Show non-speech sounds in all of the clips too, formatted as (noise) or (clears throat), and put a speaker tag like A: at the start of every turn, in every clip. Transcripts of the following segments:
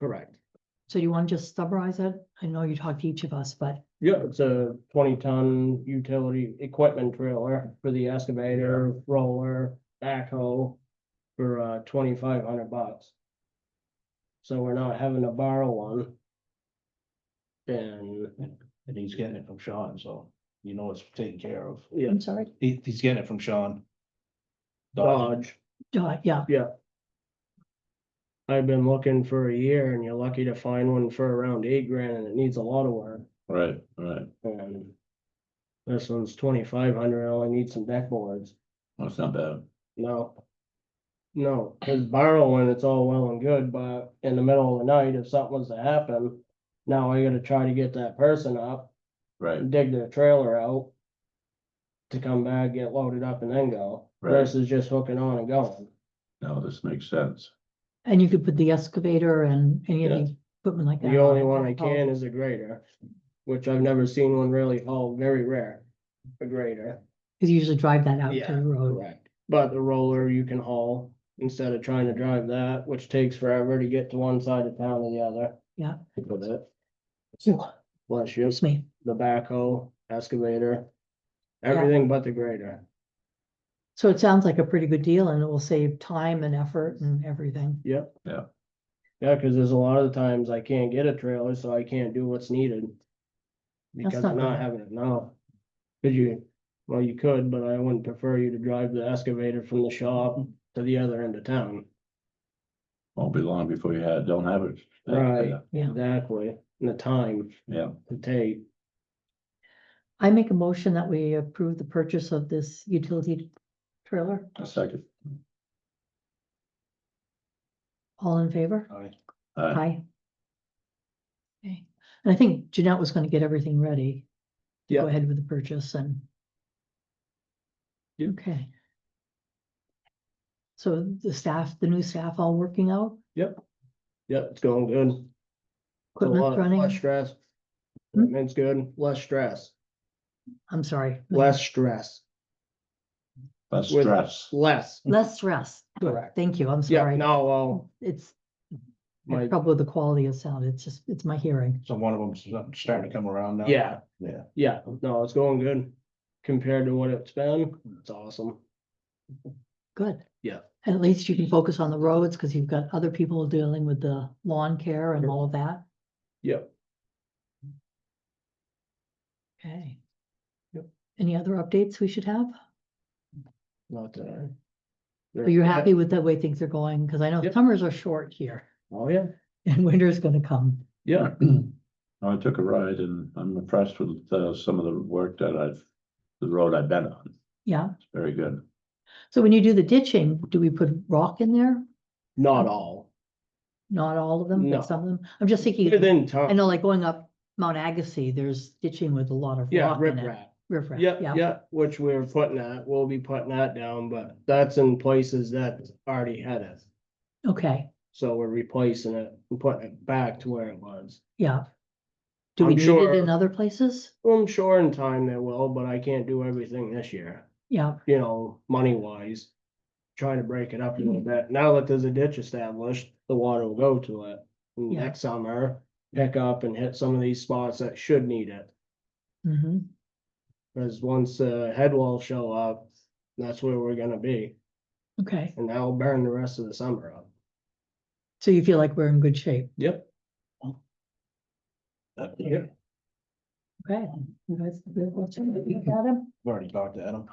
A: Correct.
B: So you want to just summarize it? I know you talked to each of us, but
A: Yeah, it's a twenty ton utility equipment trailer for the excavator, roller, backhoe for uh twenty-five hundred bucks. So we're not having to borrow one. And,
C: And he's getting it from Sean, so you know it's taken care of.
A: yeah,
B: I'm sorry,
C: He, he's getting it from Sean. Dodge.
A: Dodge.
B: uh, yeah,
A: I've been looking for a year and you're lucky to find one for around eight grand and it needs a lot of work.
D: Right, right.
A: And this one's twenty-five hundred, only needs some deck boards.
D: That's not bad.
A: No. No, his borrowing, it's all well and good, but in the middle of the night, if something was to happen, now I gotta try to get that person up,
D: Right,
A: dig their trailer out. To come back, get loaded up and then go,
D: Right.
A: versus just hooking on and going.
D: now this makes sense.
B: and you could put the excavator and any of
A: Yeah.
B: the equipment like that.
A: The only
B: on it.
A: one I
B: Oh,
A: can is a grader, which I've never seen one really haul, very rare. A grader.
B: Cause you usually drive that out to
A: Yeah,
B: the road.
A: Correct. But the roller you can haul instead of trying to drive that, which takes forever to get to one side of town to the other.
B: Yeah.
A: With it.
B: Ooh,
A: Bless you,
B: Excuse me,
A: the backhoe, excavator, everything but the grader.
B: so it sounds like a pretty good deal and it will save time and effort and everything.
A: Yeah, cause there's a lot of times I can't get a trailer, so I can't do what's needed. Because
B: not
A: I'm not
B: bad.
A: having it now. Cause you, well, you could, but I wouldn't prefer you to drive the excavator from the shop to the other end of town.
D: Won't be long before you had, don't have it.
A: Right.
D: Yeah,
B: Yeah,
A: Exactly, and the time
D: Yeah,
A: to take.
B: I make a motion that we approve the purchase of this utility trailer.
D: a second.
B: All in favor?
C: All right.
D: Aye.
B: Aye. Okay, and I think Jeanette was gonna get everything ready. to Go
A: Yeah.
B: ahead with the purchase and.
A: Yeah.
B: Okay. So the staff, the new staff all working out,
A: Yep, it's going good. It's a
B: equipment
A: lot- Less
B: running,
A: stress.
B: Hmm?
A: It's good, less stress,
B: I'm sorry.
A: less stress,
D: That's
A: With-
D: stress.
A: less.
B: Less stress,
A: Correct.
B: thank you, I'm
A: Yeah,
B: sorry.
A: no, well,
B: It's I have
A: my,
B: trouble with the quality of sound, it's just, it's my hearing,
C: So one of them's starting to come around now.
A: Yeah.
C: Yeah.
A: yeah, no, it's going good. Compared to what it's been, it's awesome.
B: good.
A: Yeah.
B: And at least you can focus on the roads, because you've got other people dealing with the lawn care and all of that.
A: Yep.
B: Okay.
A: Yep.
B: Any other updates we should have?
A: Not that.
B: Are you happy with the way things are going? Because I know
A: Yep.
B: summers are short here (laughs)
A: Oh, yeah,
B: and winter's gonna come.
D: (clears throat)
A: yeah,
D: I took a ride and I'm impressed with uh, some of the work that I've, the road I've been on.
B: Yeah.
D: It's very good.
B: So when you do the ditching, do we put rock in there?
A: not all,
B: Not all of them,
A: No.
B: but some of them? I'm just thinking,
A: within
B: I
A: time,
B: know like going up Mount Agassiz, there's ditching with a lot of
A: yeah,
B: rock
A: rip
B: in it.
A: rap.
B: Riprap,
A: Yep, yep, which we're putting that, we'll be putting that down, but that's in places that already had it.
B: Okay,
A: So we're replacing it, and putting it back to where it was.
B: yeah. Do
A: I'm
B: we need
A: sure-
B: it in other places?
A: Well, I'm sure in time they will, but I can't do everything this year,
B: Yeah,
A: you know, money wise. Trying to break it up a
B: Mm-hmm.
A: little bit. Now that there's a ditch established, the water will go to it. And
B: Yeah.
A: Next summer, pick up and hit some of these spots that should need it.
B: hmm
A: Cause once the head walls show up, that's where we're gonna be.
B: okay.
A: And that'll burn the rest of the summer up.
B: So you feel like we're in good shape?
A: Yep.
C: I've
B: Okay. You guys good watching it? You got 'em?
C: already talked to Adam.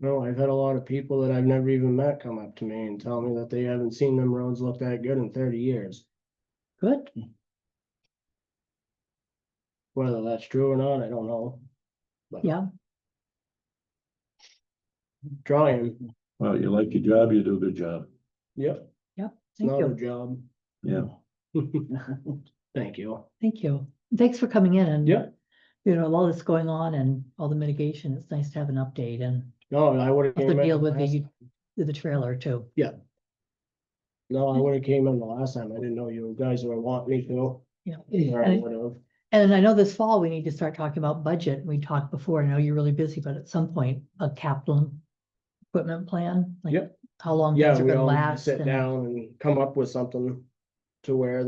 A: No, I've had a lot of people that I've never even met come up to me and tell me that they haven't seen them roads look that good in thirty years.
B: Good,
A: Whether that's true or not, I don't know. But
B: yeah,
A: Trying,
D: Well, you like your job, you do a good job.
A: yep, it's
B: thank
A: not a
B: you,
A: job.
D: Yeah,
A: (laughs) Thank you.
B: thank you. Thanks for coming in and.
A: Yeah.
B: You know, all this going on and all the mitigation, it's nice to have an update and
A: No, I would have.
B: also deal with the, with the trailer too.
A: No, I would have came in the last time. I didn't know you guys were wanting me to.
B: Yeah.
A: or I
B: And-
A: would have.
B: And I know this fall, we need to start talking about budget. We talked before, I know you're really busy, but at some point, a capital. Equipment plan, like
A: Yep.
B: how long
A: Yeah,
B: things are
A: we
B: gonna
A: all
B: last
A: sit
B: and
A: down and come up with something. to where